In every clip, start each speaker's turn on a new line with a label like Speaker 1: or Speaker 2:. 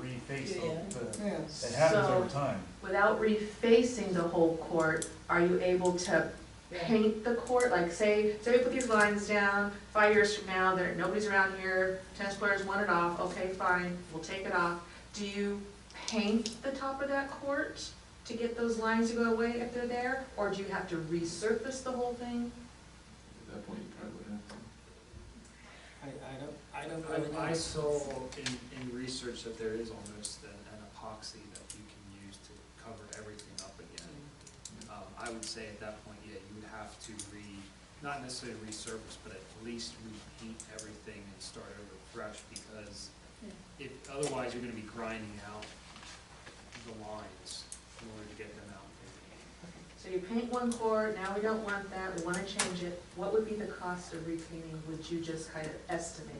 Speaker 1: reface the, the-
Speaker 2: Yes.
Speaker 1: it happens
Speaker 3: So-
Speaker 1: over time.
Speaker 3: Without refacing the whole court, are you able to paint the court? Like say, say we put these lines down, five years from now, there, nobody's around here, tennis players want it off, okay, fine, we'll take it off. Do you paint the top of that court to get those lines to go away if they're there? Or do you have to resurface the whole thing?
Speaker 4: At that point, you probably would have
Speaker 5: I,
Speaker 4: to.
Speaker 5: I don't, I
Speaker 6: I-
Speaker 5: don't really know.
Speaker 6: I saw in, in research that there is almost an an epoxy that you can use to cover everything up again. Um, I would say at that point, yeah, you would have to re, not necessarily resurface, but at least repaint everything and start over fresh, because if, otherwise you're gonna be grinding out the lines in order to get them out.
Speaker 3: So you paint one court, now we don't want that, we wanna change it. What would be the cost of repainting, would you just kind of estimate?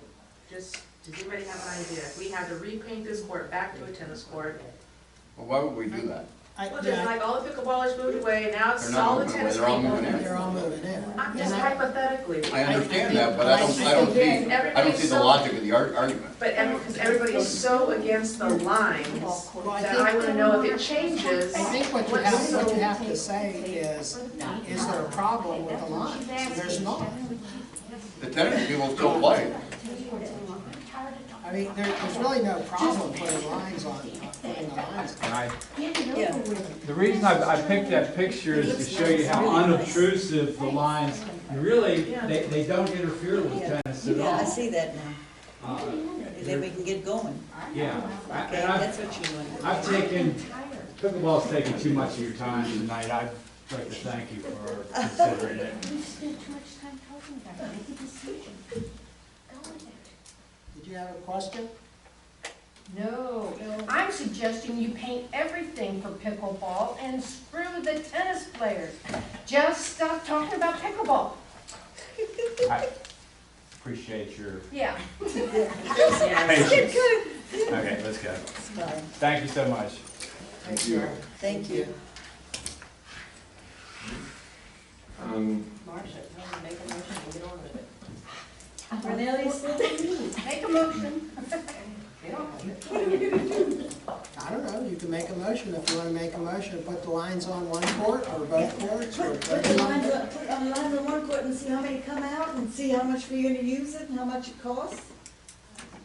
Speaker 3: Just, does anybody have an idea? If we had to repaint this court back to a tennis court,
Speaker 7: Well, why would we do that?
Speaker 2: I,
Speaker 3: well,
Speaker 2: yeah,
Speaker 3: just like all the pickleballers moved away, now it's
Speaker 7: They're not
Speaker 3: all the
Speaker 7: moving away,
Speaker 3: tennis
Speaker 7: they're all
Speaker 3: people.
Speaker 7: moving in.
Speaker 2: they're all moving in.
Speaker 3: I'm just
Speaker 2: And I-
Speaker 3: hypothetically,
Speaker 7: I
Speaker 2: I think-
Speaker 7: understand that, but I don't, I don't see, I don't
Speaker 3: everybody's
Speaker 7: see the
Speaker 3: so,
Speaker 7: logic of the ar- argument.
Speaker 3: but every, because everybody's so against the lines,
Speaker 2: Well, I
Speaker 3: that I
Speaker 2: think,
Speaker 3: wanna know if it changes.
Speaker 2: I think what you have, what you have to say is, is there a problem with the lines? There's not.
Speaker 7: The tennis people still play.
Speaker 2: I mean, there, there's really no problem putting lines on, putting the lines.
Speaker 8: And I,
Speaker 9: Yeah.
Speaker 8: the reason I, I picked that picture is to show you how unobtrusive the lines, really, they, they don't interfere with tennis at
Speaker 9: Yeah, I
Speaker 8: all.
Speaker 9: see that now,
Speaker 8: Uh,
Speaker 9: and then we can get going,
Speaker 8: Yeah, I-
Speaker 9: okay,
Speaker 8: and
Speaker 9: that's
Speaker 8: I've,
Speaker 9: what you want.
Speaker 8: I've taken, pickleball's taken too much of your time tonight, I'd like to thank you for considering it.
Speaker 10: We spent too much time talking about it, make a decision. Go with it.
Speaker 2: Did you have a question?
Speaker 10: No, I'm suggesting you paint everything for pickleball and screw the tennis players. Just stop talking about pickleball.
Speaker 8: I appreciate your,
Speaker 10: Yeah.
Speaker 8: Patience. okay, let's go. Thank you so much.
Speaker 2: Thank you.
Speaker 9: Thank you.
Speaker 4: Um,
Speaker 9: Marcia,
Speaker 10: Make a motion.
Speaker 2: I don't know, you can make a motion if you wanna make a motion, to put the lines on one court or both courts or.
Speaker 9: Put, put the line, put on the line on one court and see how many come out, and see how much we're gonna use it, and how much it costs.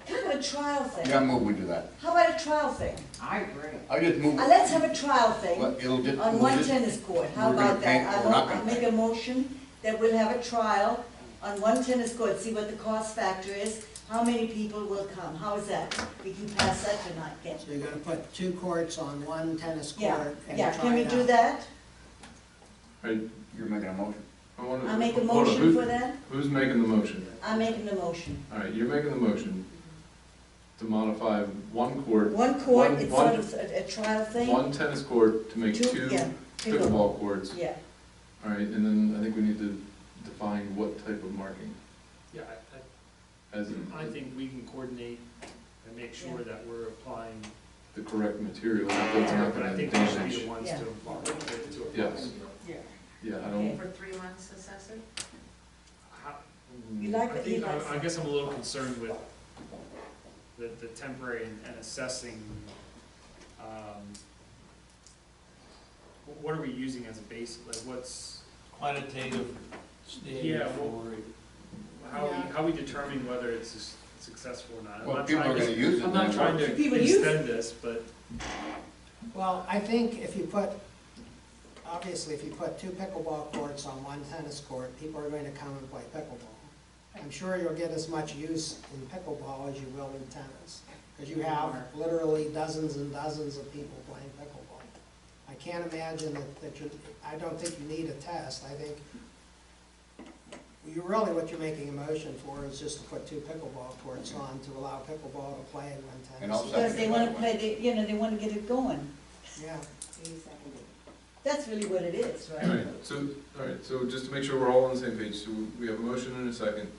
Speaker 9: Kind of a trial
Speaker 7: Yeah, I
Speaker 9: thing,
Speaker 7: move we do that.
Speaker 9: how about a trial thing?
Speaker 2: I agree.
Speaker 7: I just move,
Speaker 9: Uh, let's have a trial
Speaker 7: well,
Speaker 9: thing
Speaker 7: it'll just,
Speaker 9: on
Speaker 7: we'll
Speaker 9: one
Speaker 7: just-
Speaker 9: tennis court, how
Speaker 7: we're gonna
Speaker 9: about
Speaker 7: paint
Speaker 9: that?
Speaker 7: or
Speaker 9: I'll,
Speaker 7: not
Speaker 9: I'll
Speaker 7: gonna
Speaker 9: make a motion that we'll have a trial on one tennis court, see what the cost factor is, how many people will come, how is that? We can pass that tonight, can
Speaker 2: So you're gonna put two courts on one tennis
Speaker 9: Yeah,
Speaker 2: court and try it
Speaker 9: yeah,
Speaker 2: out.
Speaker 9: can we do that?
Speaker 7: you're making a motion.
Speaker 4: I wanna.
Speaker 9: I make a
Speaker 4: hold on,
Speaker 9: motion
Speaker 4: who-
Speaker 9: for that?
Speaker 4: Who's making the motion?
Speaker 9: I'm making a motion.
Speaker 4: All right, you're making the motion to modify one court,
Speaker 9: One court,
Speaker 4: One-
Speaker 9: it's
Speaker 4: one-
Speaker 9: sort of a a trial thing.
Speaker 4: one tennis court to make
Speaker 9: Two, yeah,
Speaker 4: two pickleball courts.
Speaker 9: Yeah,
Speaker 4: All right, and then I think we need to define what type of marking
Speaker 6: Yeah, I, I-
Speaker 4: as
Speaker 6: I
Speaker 4: in
Speaker 6: think we can coordinate and make sure
Speaker 9: Yeah.
Speaker 6: that we're applying,
Speaker 4: the correct material, that's not
Speaker 6: but I
Speaker 4: gonna
Speaker 6: think we should be
Speaker 4: damage.
Speaker 6: the ones
Speaker 9: Yeah.
Speaker 6: to apply, to apply.
Speaker 4: Yes. Yeah, I don't,
Speaker 3: For three months, assess it?
Speaker 6: How,
Speaker 9: you like
Speaker 6: I
Speaker 9: what he
Speaker 6: think,
Speaker 9: likes.
Speaker 6: I I guess I'm a little concerned with the, the temporary and and assessing, um, wh- what are we using as a base, like what's,
Speaker 8: Quantitative
Speaker 6: Yeah, well- how we, how we determine whether it's s- successful or not? I'm
Speaker 7: Well,
Speaker 6: not
Speaker 7: people are
Speaker 6: trying
Speaker 7: gonna
Speaker 6: to,
Speaker 7: use it.
Speaker 6: I'm not
Speaker 7: then.
Speaker 6: trying to
Speaker 9: People use it.
Speaker 6: extend this, but
Speaker 2: Well, I think if you put, obviously, if you put two pickleball courts on one tennis court, people are going to come and play pickleball. I'm sure you'll get as much use in pickleball as you will in tennis, because you have literally dozens and dozens of people playing pickleball. I can't imagine that, that you, I don't think you need a test, I think you really, what you're making a motion for is just to put two pickleball courts on to allow pickleball to play in one tennis.
Speaker 7: And I'll
Speaker 2: court.
Speaker 9: because they wanna play, the you know, they wanna get it going.
Speaker 2: Yeah.
Speaker 9: That's really what it is,
Speaker 4: all
Speaker 9: right?
Speaker 4: right, so, all right, so just to make sure we're all on the same page, so we have a motion and a second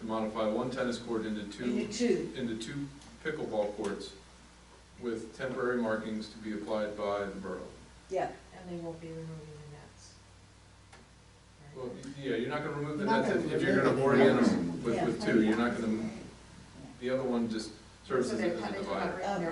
Speaker 4: to modify one tennis court into
Speaker 9: You do
Speaker 4: two
Speaker 9: two,
Speaker 4: into two pickleball courts with temporary markings to be applied by the borough.
Speaker 9: yeah.
Speaker 3: And they won't be removing the nets.
Speaker 4: Well, yeah, you're not gonna remove the
Speaker 2: You're not
Speaker 4: nets if-
Speaker 2: gonna
Speaker 4: if you're gonna
Speaker 2: remove
Speaker 4: orient
Speaker 2: it.
Speaker 4: them with, with two, you're not gonna, the other one just serves
Speaker 3: So
Speaker 4: as
Speaker 3: they're
Speaker 4: a as a
Speaker 3: kind of
Speaker 4: divider.
Speaker 3: covering their